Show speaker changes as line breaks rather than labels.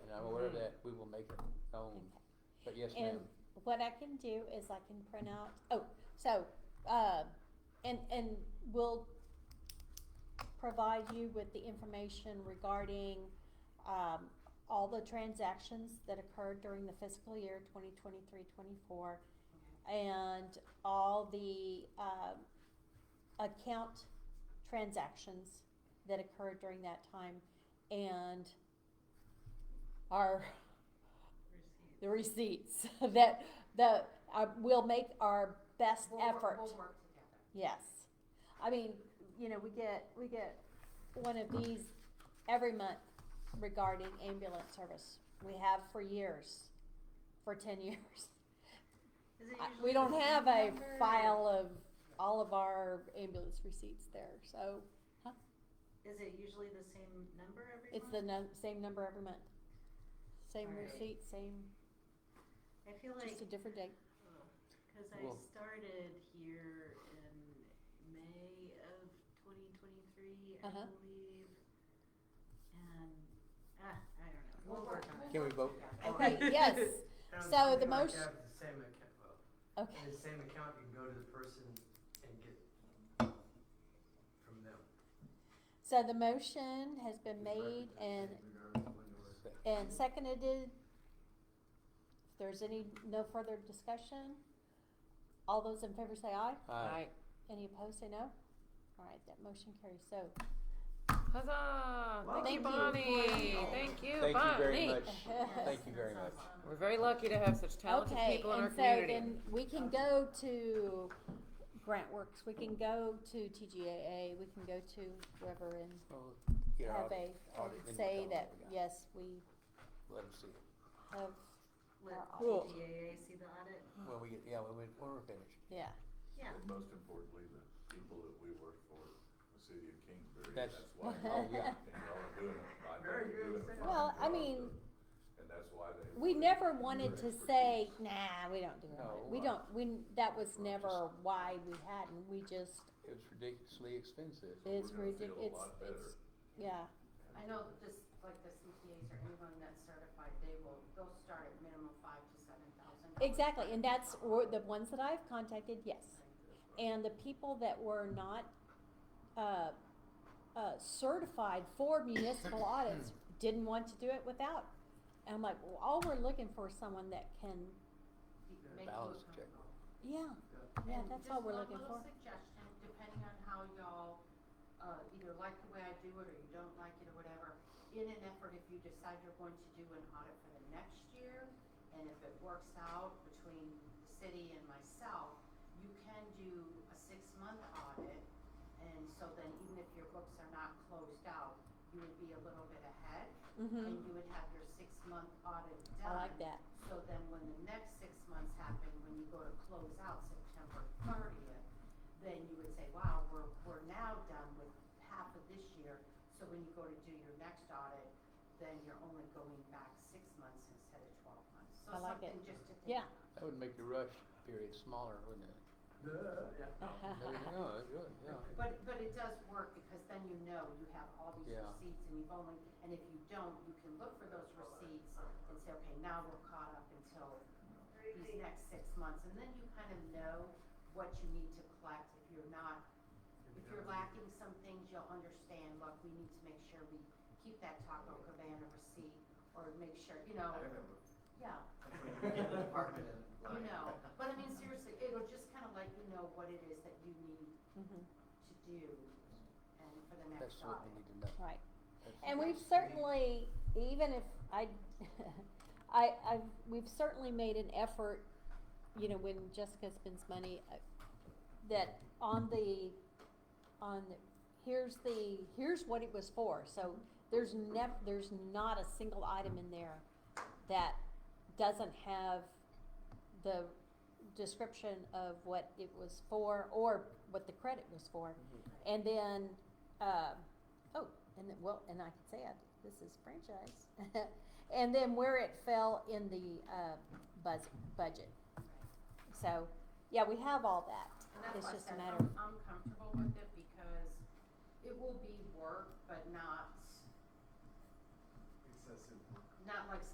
and I'm aware of that, we will make it known. But yes,
And
ma'am,
what I can do is I can print out, oh, so, uh, and, and we'll provide you with the information regarding, um, all the transactions that occurred during the fiscal year 2023-24, and all the, um, account transactions that occurred during that time, and our the receipts that the uh, we'll make our best
We'll work-
effort.
We'll work together.
Yes, I mean you know we get we get one of these every month regarding ambulance service. We have for years, for ten years.
Is it
I-
usually
We don't
the
have
same
a
number?
file of all of our ambulance receipts there, so
Is it usually the same number every
it's the
month?
num- same number every month. Same
All right.
receipt, same,
I feel like,
just a different date.
because I
Well-
started here in May of twenty twenty-three, I
Uh-huh.
believe. And, ah, I don't know, we'll
We'll
work
work
on
on
it.
can we vote?
Okay, yes,
Sounds
So
like
the
you like
motion-
to have the same account, well,
okay.
in the same account, you can go to the person and get from them.
So the motion has been made and, and seconded. If there's any, no further discussion, all those in favor say aye.
aye,
Any opposed say no. All right, that motion carries. So,
Huzzah! Thank
Thank you.
you, Bonnie. Thank you,
thank you very
Bonnie.
much,
Yes.
thank you very much.
um,
We're very lucky to have such talented
okay,
people in our
and so
community.
then we can go to Grant Works, we can go to TGAA, we can go to whoever and
Well, get our
have a,
audit,
and
then you
say
tell them
that,
what we got.
yes, we
Let them see it,
have,
Let
Cool.
TGAA see the audit,
when we get, yeah, when we, when we're finished.
yeah.
yeah.
But most importantly, the people that we work for, the city of Kingsbury,
That's-
that's why.
oh, yeah.
And y'all are doing it, I
Very
think you're
good
doing a
example.
fine
Well, I
job,
mean,
but- And that's why they.
We never wanted to
Expertise.
say, nah, we don't do it.
No,
We
uh,
don't, we, that was
we're
never why we hadn't, we just,
It's ridiculously expensive.
So we're
it's
gonna feel
ridic-
a
it's-
lot better
it's- yeah,
I know just like the CTAs or anyone that's certified, they will, they'll start at minimum five to seven thousand.
exactly, and that's, or the ones that I've contacted, yes. And the people that were not, uh, uh, certified for municipal audits didn't want to do it without. And I'm like, well, all we're looking for is someone that can,
Balance check.
yeah, yeah,
And
that's all we're looking for.
Just one little suggestion, depending on how y'all, uh, either like the way I do it or you don't like it or whatever, in an effort, if you decide you're going to do an audit for the next year, and if it works out between the city and myself, you can do a six-month audit, and so then even if your books are not closed out, you would be a little bit ahead,
Mm-hmm,
and you would have your six-month audit done.
I like that.
So then when the next six months happen, when you go to close out September thirtieth, then you would say, wow, we're, we're now done with half of this year. So when you go to do your next audit, then you're only going back six months instead of twelve months. So
I like it.
something just to think
Yeah.
about.
That would make the rush period smaller, wouldn't it? No, no, it would, yeah.
But, but it does work because then you know you have all these
Yeah.
receipts and you've only, and if you don't, you can look for those receipts and say, okay, now we're caught up until these next six months. And then you kind of know what you need to collect. If you're not, if you're lacking some things, you'll understand, look, we need to make sure we keep that Taco Cabana receipt or make sure, you know, yeah. You know, but I mean, seriously, it'll just kind of let you know what it is that you need
Mhm.
to do and for the
That's
next
what
audit.
we need to know.
Right.
That's-
And we've certainly, even if I, I, I've, we've certainly made an effort, you know, when Jessica spends money, uh, that on the, on, the- here's the, here's what it was for, so there's nev- there's not a single item in there that doesn't have the description of what it was for, or what the credit was for. And then, uh, oh, and then, well, and I can say I, this is franchise. and then where it fell in the uh, buzz, budget. So, yeah, we have all that.
And that's
It's
why I
just a
said
matter
I'm, I'm comfortable with it because it will be work, but not,
Excessive.
not not like